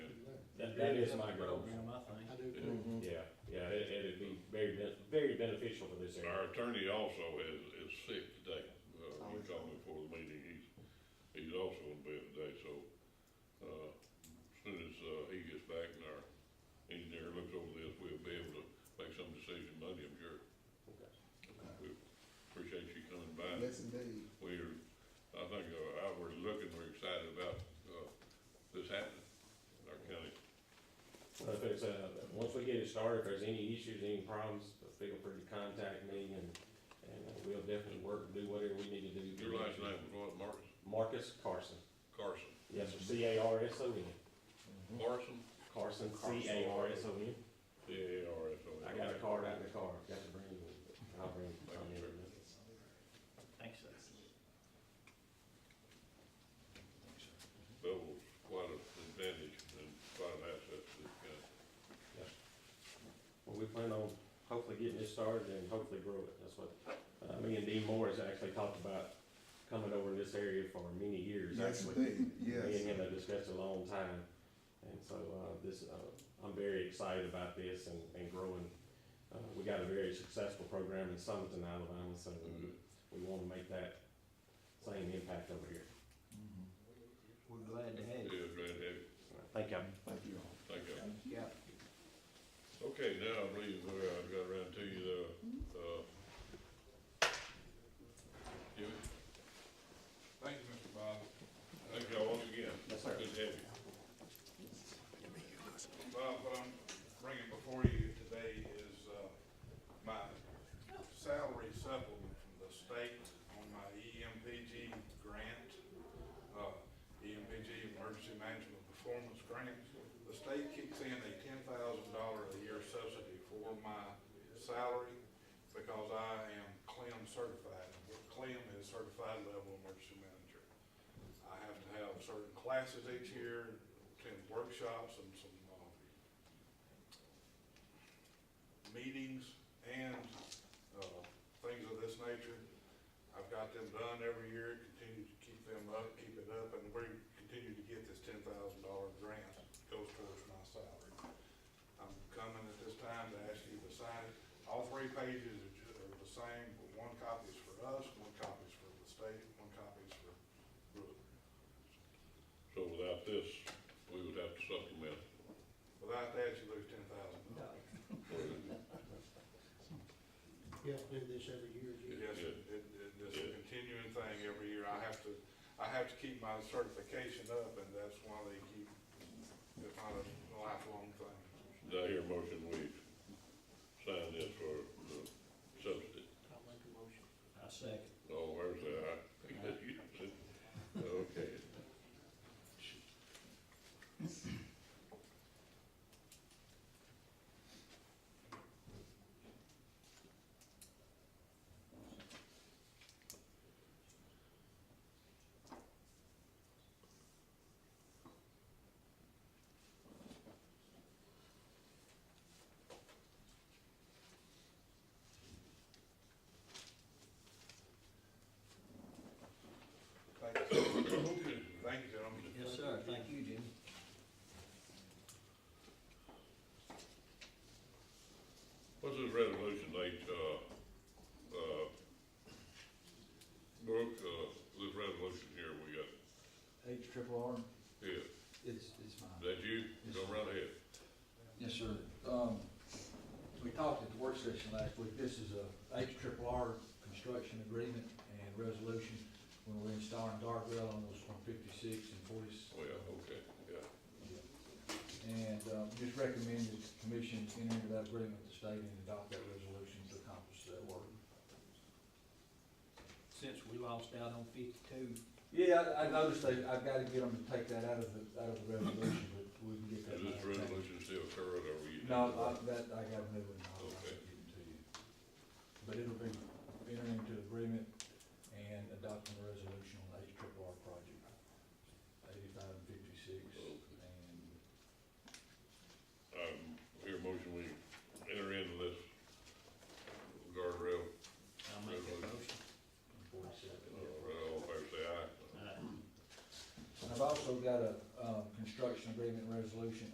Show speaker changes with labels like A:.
A: That is my goal.
B: I do too.
C: Mhm.
A: Yeah, yeah, it, it'd be very, ben- very beneficial for this area.
D: Our attorney also is, is sick today, uh, he called me before the meeting, he's, he's also in bed today, so, uh, as soon as, uh, he gets back and our engineer looks over this, we'll be able to make some decision Monday, I'm sure.
A: Okay.
D: We appreciate you coming by.
C: Yes, indeed.
D: We're, I think, uh, outward looking, we're excited about, uh, this happening in our county.
A: But if it's, uh, once we get it started, if there's any issues, any problems, feel free to contact me and, and uh, we'll definitely work, do whatever we need to do.
D: Your last name was what, Marcus?
A: Marcus Carson.
D: Carson.
A: Yes, sir, C A R S O N. Mm-hmm.
D: Carson?
A: Carson, C A R S O N.
D: C A R S O N.
A: I got a card out in the car, got to bring it, I'll bring it. I'll bring it.
B: Thanks, sir.
D: Bell's quite an advantage and quite an asset to this county.
A: Well, we plan on hopefully getting this started and hopefully grow it. That's what, uh, me and Dean Moore has actually talked about coming over in this area for many years,
C: Yes,
A: actually.
C: indeed,
A: Me and
C: yes.
A: him have discussed a long time. And so, uh, this, uh, I'm very excited about this and, and growing. Uh, we got a very successful program in Summerton, Alabama, so
D: Mhm.
A: we wanna make that same impact over here.
C: Mhm.
B: We're glad to have
D: It
B: you.
D: is right heavy,
A: Thank you.
C: Thank you all.
D: thank you.
B: Yeah.
D: Okay, now I believe where I got around to you,
B: Mm-hmm.
D: Uh, the, uh, Jimmy,
E: Thank you, Mr. Bob.
D: thank y'all once again.
A: Yes, sir.
D: Good to have you.
E: Bob, what I'm bringing before you today is, uh, my salary supplement from the state on my E EMPG grant, uh, EMPG Emergency Management Performance Grant. The state kicks in a ten thousand dollar a year subsidy for my salary because I am CLEM certified. CLEM is Certified Level Emergency Manager. I have to have certain classes each year, attend workshops and some, uh, meetings and, uh, things of this nature. I've got them done every year, continue to keep them up, keep it up, and we continue to get this ten thousand dollar grant that goes towards my salary. I'm coming at this time to ask you to sign it. All three pages are ju- are the same, but one copy is for us, one copy is for the state, one copy is for Brewer.
D: So without this, we would have to supplement.
E: Without that, you lose ten thousand dollars.
F: You have to do this every year, do you?
E: Yes,
D: Yeah.
E: it, it, it- it's a continuing thing every year. I have to, I have to keep my certification up, and that's why they keep, it's not a lifelong thing.
D: Did I hear a motion we sign this for the subsidy?
F: I'll make a motion.
B: I second.
D: Oh, where's that? Okay.
E: Thank you. Thank you, gentlemen.
B: Yes, sir. Thank you, Jimmy.
D: What's this resolution date, uh, uh, Brooke, uh, this resolution here we got,
G: H triple R,
D: yeah,
G: it's,
D: is
G: it's fine.
D: that you? Go right ahead.
G: Yes, sir. Um, we talked at the work session last week, this is a H triple R construction agreement and resolution when we're installing guardrail on those one fifty-six and forty.
D: Oh, yeah, okay, yeah.
G: And, uh, just recommend that the commission enter into that agreement with the state and adopt that resolution to accomplish that work.
B: Since we lost out on fifty-two,
G: Yeah, I, I noticed they, I've gotta get them to take that out of the, out of the resolution, but we can get that.
D: Is this
G: back.
D: resolution still current or we?
G: No, I, that, I got a new one, I'll I'll
D: Okay.
G: get it to you. But it'll be entering into agreement and adopting a resolution on H triple R project, eighty-five and fifty-six,
D: Okay.
G: and
D: Um, here motion we enter into this guardrail,
B: I'll make that motion.
G: forty-seven.
D: uh, all in favor say aye.
B: Uh,
G: And I've also got a, um, uh, construction agreement resolution